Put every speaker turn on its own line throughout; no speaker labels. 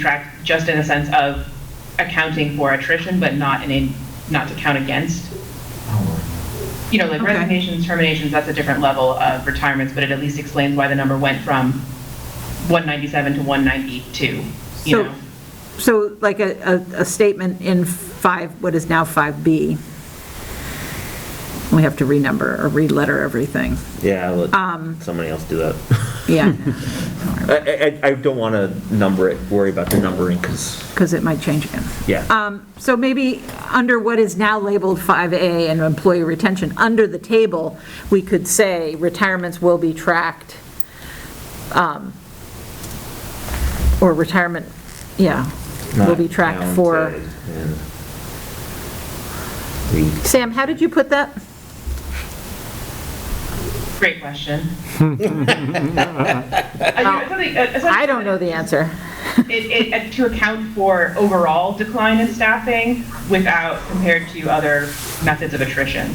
track just in a sense of accounting for attrition, but not in a, not to count against. You know, like
Okay.
resignations, terminations, that's a different level of retirements, but it at least explains why the number went from 197 to 192, you
So-
know?
So like a, a- a statement in 5, what is now 5B. We have to renumber or re-letter everything.
Yeah, I'll
Um,
let somebody else do that.
Yeah,
I, I, I don't want to number it, worry about the numbering, because,
because it might change again.
yeah.
Um, So maybe under what is now labeled 5A and employee retention, under the table, we could say retirements will be tracked, um, or retirement, yeah, will
Not
be tracked for.
counted in the-
Sam, how did you put that?
Great question. I
I don't know the answer.
It, it, uh, to account for overall decline in staffing without, compared to other methods of attrition.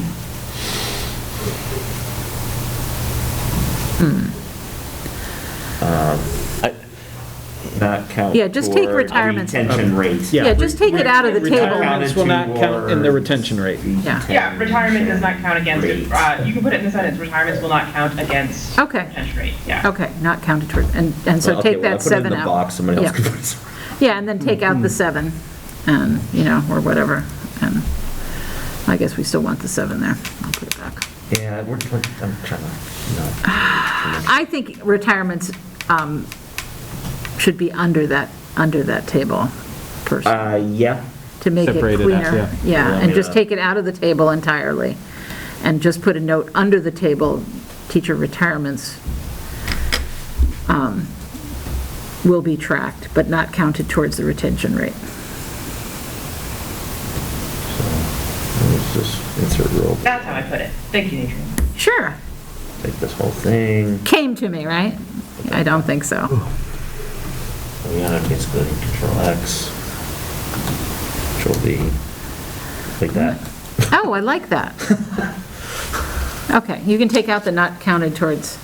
Not count.
Yeah, just take
for
retirements.
Retention rates.
Yeah, just take it out of the table.
Retirement
Retirements will not count in the retention rate.
Yeah.
Yeah, retirement does not count against,
Rates.
uh, you can put it in the sentence, retirements will not count against.
Okay.
Retention rate, yeah.
Okay, not counted toward, and, and so
Okay,
take
well, I
that
put it in
seven
the box,
out.
somebody else
Yeah.
can put it. Hmm.
Yeah, and then take out the seven, and, you know, or whatever, and I guess we still want the seven there. I'll put it back.
Yeah, we're, we're- I'm trying to, no.
I think retirements um, should be under that, under that table, person,
Uh, yeah,
to make it
Separated out,
cleaner.
yeah.
Yeah, and just
Yeah.
take it out of the table entirely, and just put a note under the table, teacher retirements um, will be tracked, but not counted towards the retention rate.
let's just insert roll,
That's how I put it. Thank you, Adrian.
Sure,
take this whole thing.
came to me, right? I don't think so.
We gotta basically control X, control V, like that.
Oh, I like that. Okay, you can take out the not counted towards,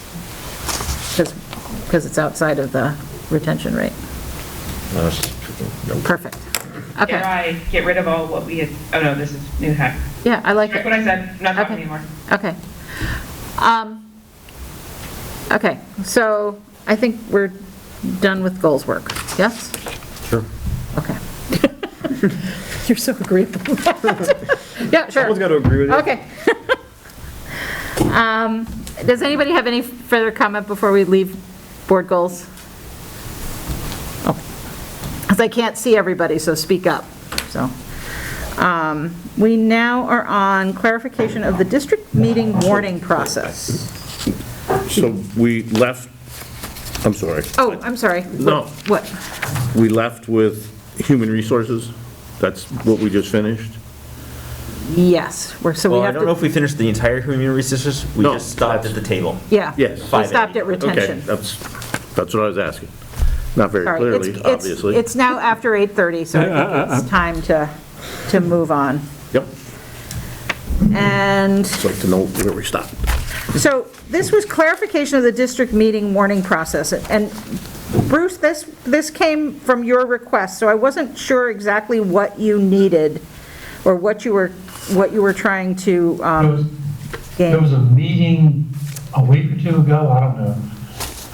because, because it's outside of the retention rate.
No, it's just freaking- nope.
Perfect.
Dare
Okay,
I get rid of all what we had, oh no, this is new hack.
yeah, I like
Check what I
it.
said, I'm not talking
Okay.
anymore.
Okay. Um, Okay, so I think we're done with goals work, yes?
Sure.
Okay. You're so agreeable. Yeah, sure.
Someone's got to agree with it.
Okay. Um, Does anybody have any further comment before we leave board goals? Because I can't see everybody, so speak up, so. Um, We now are on clarification of the district meeting warning process.
So we left, I'm sorry,
Oh, I'm sorry.
No.
What?
we left with human resources? That's what we just finished?
Yes, we're, so we
Well, I
have
don't know if
to,
we finished the entire human resources, we
No.
just stopped at the table.
yeah.
Yes.
We
5A.
stopped at
Okay,
retention.
that's, that's what I was asking. Not very
Sorry, it's-
clearly,
it's-
obviously.
It's now after 8:30, so I think it's time to, to move on.
Yep,
And
just like to know where we stopped.
so this was clarification of the district meeting warning process. And Bruce, this, this came from your request, so I wasn't sure exactly what you needed or what you were, what you were trying to
There was,
um,
there was
gain.
a meeting a week or two ago, I don't know.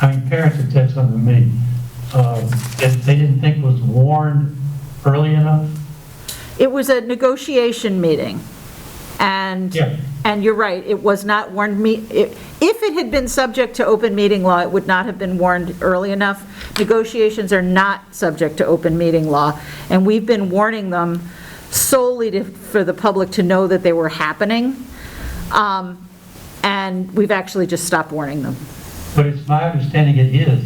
I mean, parents had said something to me, uh, that they didn't think was warned early enough.
It was a negotiation meeting. And,
Yeah.
and you're right, it was not warned me, i- if it had been subject to open meeting law, it would not have been warned early enough. Negotiations are not subject to open meeting law, and we've been warning them solely to, for the public to know that they were happening. Um, And we've actually just stopped warning them.
But it's my understanding it is,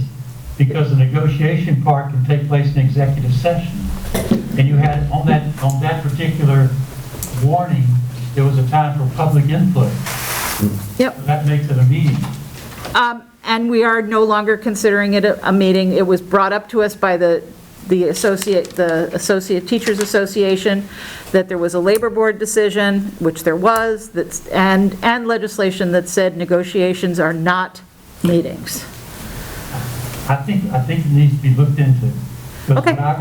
because the negotiation part can take place in executive session. And you had, on that, on that particular warning, there was a time for public input.
Yep.
That makes it a meeting.
Um, And we are no longer considering it a a meeting. It was brought up to us by the, the associate, the Associate Teachers Association, that there was a labor board decision, which there was, that's, and, and legislation that said negotiations are not meetings.
I think, I think it needs to be looked into. But
Okay.
what I